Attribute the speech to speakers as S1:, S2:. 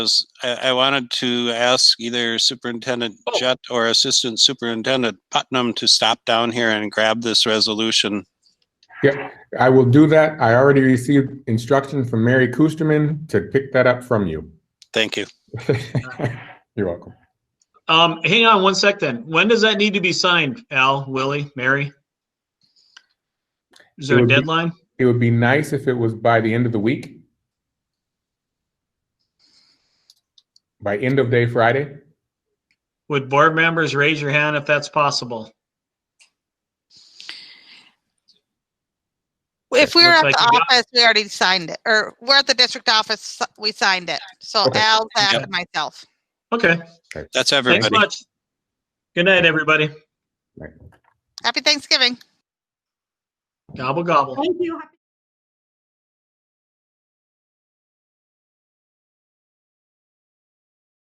S1: was, I, I wanted to ask either Superintendent
S2: Oh.
S1: Jett or Assistant Superintendent Putnam to stop down here and grab this resolution.
S3: I will do that. I already received instruction from Mary Kusterman to pick that up from you.
S1: Thank you.
S3: You're welcome.
S2: Um, hang on one sec then. When does that need to be signed, Al, Willie, Mary? Is there
S3: It
S2: a
S3: would be-
S2: deadline?
S3: It would be nice if it was by the end of the week. By end of day Friday?
S2: Would board members raise your hand if that's possible?
S4: If we were
S2: Looks
S4: at
S2: like
S4: the
S2: we got-
S4: office, we already signed it, or we're at the district office, we signed it. So
S3: Okay.
S4: Al, Zach,
S1: Yep.
S4: and myself.
S2: Okay,
S1: That's
S2: thanks
S1: everybody.
S2: much. Good night, everybody.
S4: Happy Thanksgiving.
S2: Gobble, gobble.
S5: Thank you.